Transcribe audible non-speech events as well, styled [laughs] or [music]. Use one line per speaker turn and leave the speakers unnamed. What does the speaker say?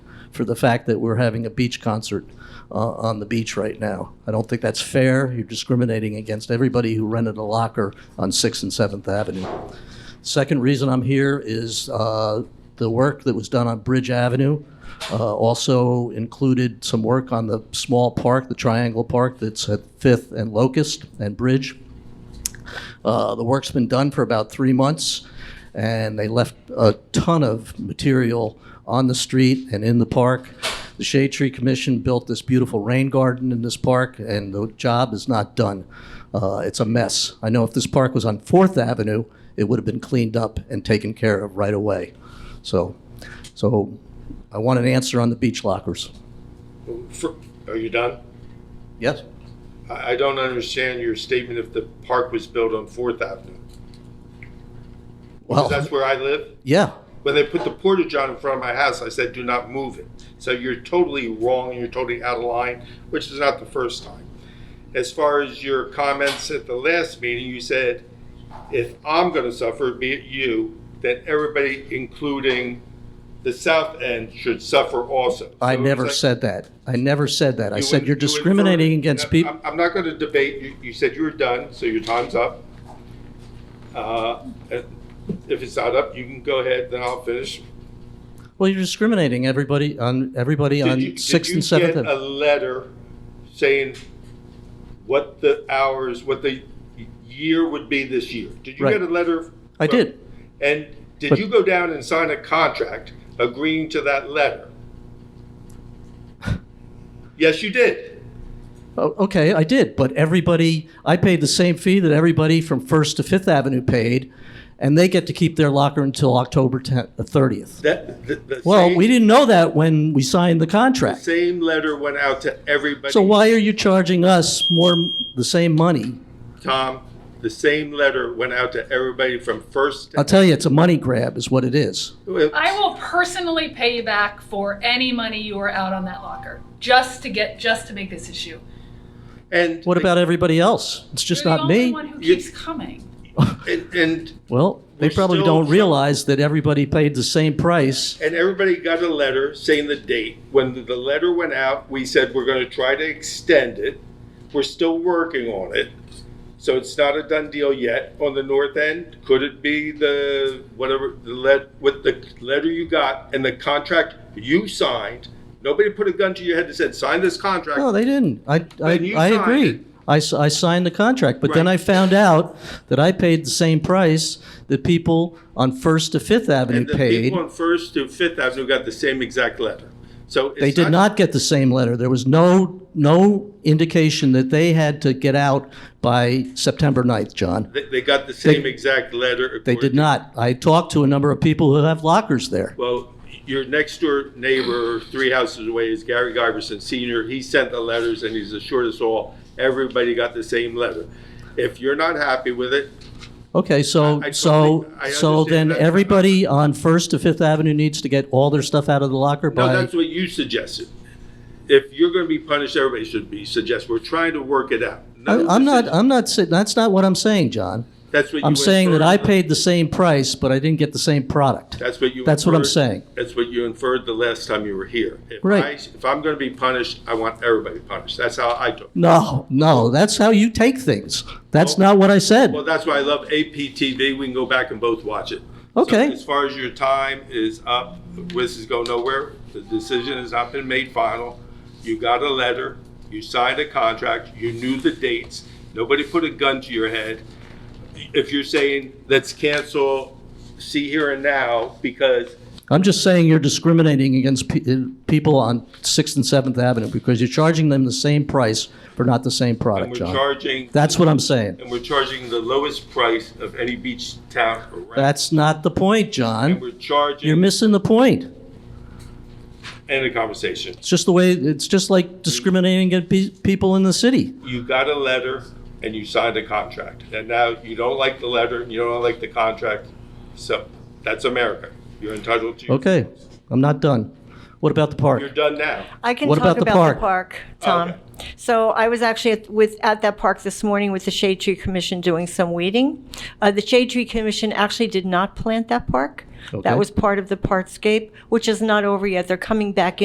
for the fact that we're having a beach concert uh, on the beach right now. I don't think that's fair. You're discriminating against everybody who rented a locker on 6th and 7th Avenue. Second reason I'm here is uh, the work that was done on Bridge Avenue uh, also included some work on the small park, the Triangle Park that's at Fifth and Locust and Bridge. Uh, The work's been done for about three months, and they left a ton of material on the street and in the park. The Shade Tree Commission built this beautiful rain garden in this park, and the job is not done. Uh, It's a mess. I know if this park was on Fourth Avenue, it would have been cleaned up and taken care of right away. So, so I want an answer on the beach lockers.
For- Are you done?
Yes?
I I don't understand your statement if the park was built on Fourth Avenue. Because
Well,
that's where I live.
yeah,
When they put the portage on in front of my house, I said, do not move it. So you're totally wrong and you're totally out of line, which is not the first time. As far as your comments at the last meeting, you said, if I'm going to suffer, be it you, then everybody, including the South End, should suffer also.
I
So
never
it's
said
like-
that. I never said that. I
You
said
in-
you're
you infer-
discriminating against
I'm-
people.
I'm not going to debate. You, you said you were done, so your time's up. Uh, If it's not up, you can go ahead, then I'll finish.
Well, you're discriminating everybody on everybody
Did you-
on sixth and
Did
seventh.
you get a letter saying what the hours, what the year would be this year? Did you
Right.
get a letter?
I
from-
did.
And did
But-
you go down and sign a contract agreeing to that
[laughs]
letter? Yes, you did.
Oh, Okay, I did, but everybody, I paid the same fee that everybody from First to Fifth Avenue paid, and they get to keep their locker until October tenth, thirtieth.
That, the- the
Well,
same-
we didn't know that when we signed the contract.
Same letter went out to everybody.
So why are you charging us more, the same money?
Tom, the same letter went out to everybody from first.
I'll tell you, it's a money grab is what it is.
I will personally pay you back for any money you were out on that locker, just to get, just to make this issue.
And
What about everybody else? It's just
You're
not
the only
me.
one who
You-
keeps coming.
And, and
Well, they
We're
probably
still
don't
trying-
realize that everybody paid the same price.
and everybody got a letter saying the date. When the, the letter went out, we said we're going to try to extend it. We're still working on it. So it's not a done deal yet. On the north end, could it be the whatever the let with the letter you got and the contract you signed? Nobody put a gun to your head and said, "Sign this contract."
No, they didn't. I,
Then
I,
you
I
signed it.
agree. I, s- I signed the contract, but then
Right.
I found out that I paid the same price that people on First to Fifth Avenue
And the
paid.
people on First to Fifth Avenue got the same exact letter. So it's
They did not get the same letter. There was no, no indication that they had to get out by September 9th, John.
They, they got the same exact letter.
They did not. I talked to a number of people who have lockers there.
Well, your next door neighbor, three houses away, is Gary Giverson Senior. He sent the letters, and he's assured us all everybody got the same letter. If you're not happy with it,
Okay, so,
I- I
so,
totally- I
so
understand
then
that.
everybody on First to Fifth Avenue needs to get all their stuff out of the locker
no,
by,
that's what you suggested. If you're going to be punished, everybody should be suggested. We're trying to work it out. None
I-
of
I'm
this
not,
is-
I'm not, sa- that's not what I'm saying, John.
That's what you.
I'm saying that I
inferred.
paid the same price, but I didn't get the same product.
That's what you.
That's what I'm
inferred-
saying.
That's what you inferred the last time you were here. If
Right.
I- If I'm going to be punished, I want everybody punished. That's how I do. it.
No, no, that's how you take things. That's not what I said.
Well, that's why I love APTV. We can go back and both watch it. So
Okay.
As far as your time is up, this is going nowhere. The decision has not been made final. You got a letter, you signed a contract, you knew the dates. Nobody put a gun to your head. If you're saying, let's cancel see here and now because
I'm just saying you're discriminating against pe- uh, people on Sixth and Seventh Avenue because you're charging them the same price for not the same
and
product,
we're
John.
charging
That's what I'm saying.
and we're charging the lowest price of any beach town around.
That's not the point,
and
John.
we're charging
You're missing the point.
end of conversation.
It's just the way, it's just like discriminating against pe- people in the city.
You got a letter and you signed a contract, and now you don't like the letter and you don't like the contract. So that's America. You're entitled to.
Okay, I'm not done. What about the park?
You're done now.
I can
What about
talk
the park?
Tom.
Okay.
So I was actually at, with, at that park this morning with the Shade Tree Commission doing some weeding. Uh, the Shade Tree Commission actually did not plant that park.
Okay.
That was part of the partscape, which is not over yet. They're coming back